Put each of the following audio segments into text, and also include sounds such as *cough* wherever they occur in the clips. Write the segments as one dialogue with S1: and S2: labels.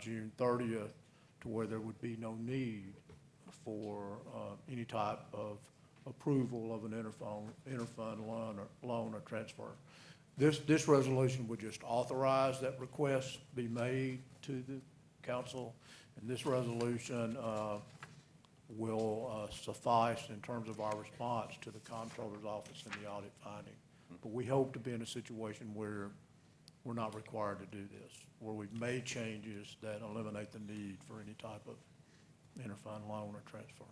S1: June thirtieth to where there would be no need for uh, any type of approval of an interfund, interfund loan or, loan or transfer. This, this resolution would just authorize that request be made to the council, and this resolution uh, will uh, suffice in terms of our response to the comptroller's office and the audit finding. But we hope to be in a situation where we're not required to do this, where we've made changes that eliminate the need for any type of interfund loan or transfer.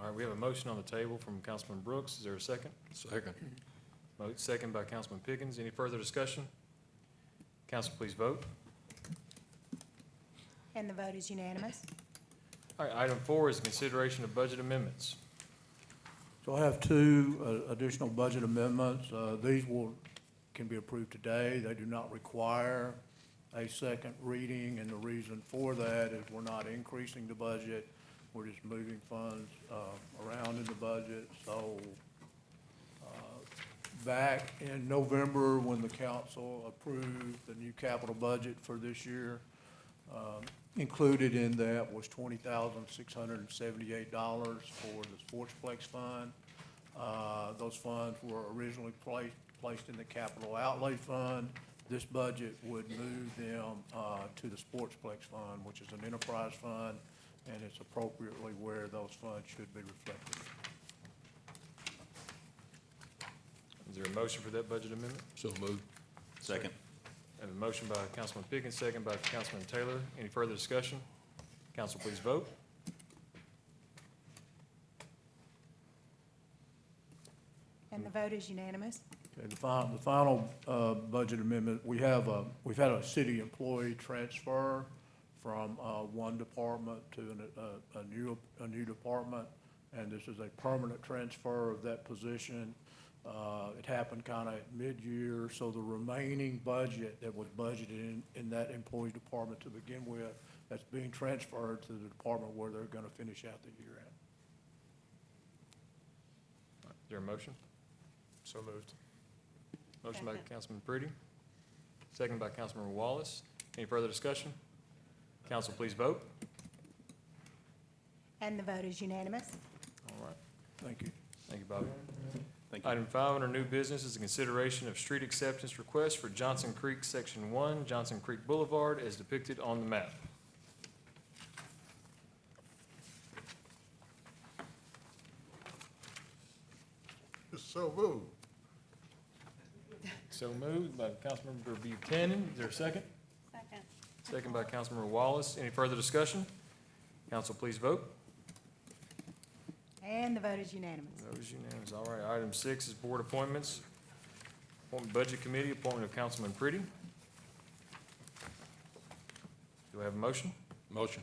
S2: All right, we have a motion on the table from Councilman Brooks. Is there a second?
S3: Second.
S2: Mo- Second by Councilman Pickens. Any further discussion? Council, please vote.
S4: And the vote is unanimous.
S2: All right, item four is consideration of budget amendments.
S1: So I have two uh, additional budget amendments. Uh, These will, can be approved today. They do not require a second reading, and the reason for that is we're not increasing the budget. We're just moving funds uh, around in the budget. So uh, back in November, when the council approved the new capital budget for this year, um, Included in that was twenty thousand, six hundred and seventy-eight dollars for the Sportsplex Fund. Uh, Those funds were originally placed, placed in the Capital Outlay Fund. This budget would move them uh, to the Sportsplex Fund, which is an enterprise fund, and it's appropriately where those funds should be reflected.
S2: Is there a motion for that budget amendment?
S3: So moved. Second.
S2: I have a motion by Councilman Pickens, second by Councilman Taylor. Any further discussion? Council, please vote.
S4: And the vote is unanimous.
S1: Okay, the final, the final, uh, budget amendment, we have a, we've had a city employee transfer from, uh, one department to an, uh, a, a new, a new department, and this is a permanent transfer of that position. Uh, it happened kind of mid-year, so the remaining budget that was budgeted in, in that employee department to begin with, that's being transferred to the department where they're gonna finish out the year at.
S2: Is there a motion? So moved. Motion by
S4: Second.
S2: Councilman Pretty, second by Councilman Wallace. Any further discussion? Council, please vote.
S4: And the vote is unanimous.
S2: All right,
S1: Thank you.
S2: thank you, Bobby.
S3: Thank you.
S2: Item five under new business is a consideration of street acceptance request for Johnson Creek Section One, Johnson Creek Boulevard as depicted on the map.
S5: So moved.
S2: So moved by Councilmember Buchanan. Is there a second?
S4: Second.
S2: Second by Councilmember Wallace. Any further discussion? Council, please vote.
S4: And the vote is unanimous.
S2: That was unanimous. All right, item six is board appointments. Appointment Budget Committee, appointment of Councilman Pretty. Do I have a motion?
S3: Motion.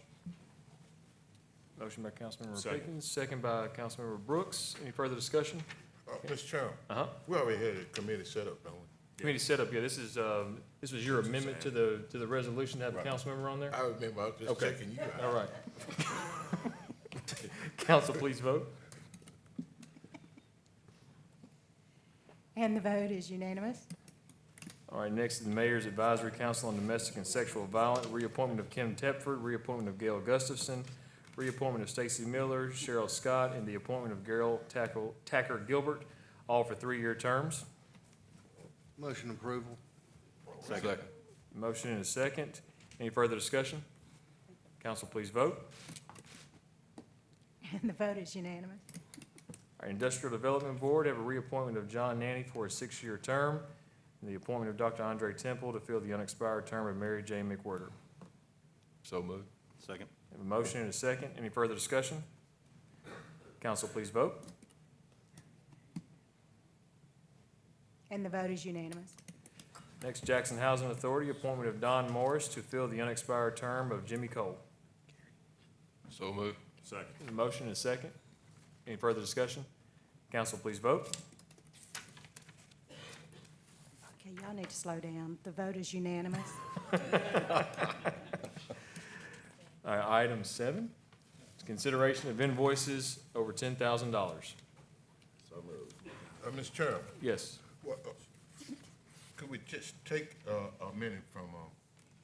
S2: Motion by Councilmember
S3: Second.
S2: Pickens, second by Councilmember Brooks. Any further discussion?
S5: Uh, Mr. Chairman,
S2: Uh-huh.
S5: we already had a committee set up, don't we?
S2: Committee setup, yeah, this is, um, this was your amendment to the, to the resolution to have a
S5: Right.
S2: council member on there?
S5: I remember, I was just
S2: Okay.
S5: checking you out.
S2: All right. *laughs* Council, please vote.
S4: And the vote is unanimous.
S2: All right, next is the Mayor's Advisory Council on Domestic and Sexual Violence, reappointment of Kim Tepford, reappointment of Gail Gustafson, reappointment of Stacy Miller, Cheryl Scott, and the appointment of Gerald Tackle- Tacker Gilbert, all for three-year terms.
S6: Motion approval.
S3: Second.
S2: Motion and a second. Any further discussion? Council, please vote.
S4: And the vote is unanimous.
S2: Our Industrial Development Board have a reappointment of John Nanny for a six-year term, and the appointment of Dr. Andre Temple to fill the unexpired term of Mary J. McWhirter.
S3: So moved. Second.
S2: Have a motion and a second. Any further discussion? Council, please vote.
S4: And the vote is unanimous.
S2: Next, Jackson Housing Authority, appointment of Don Morris to fill the unexpired term of Jimmy Cole.
S3: So moved.
S2: Have a motion and a second. Any further discussion? Council, please vote.
S4: Okay, y'all need to slow down. The vote is unanimous.
S2: All right, Uh, item seven, it's consideration of invoices over ten thousand dollars.
S5: Uh, Mr. Chairman,
S2: Yes.
S5: what, uh, could we just take, uh, a minute from, um,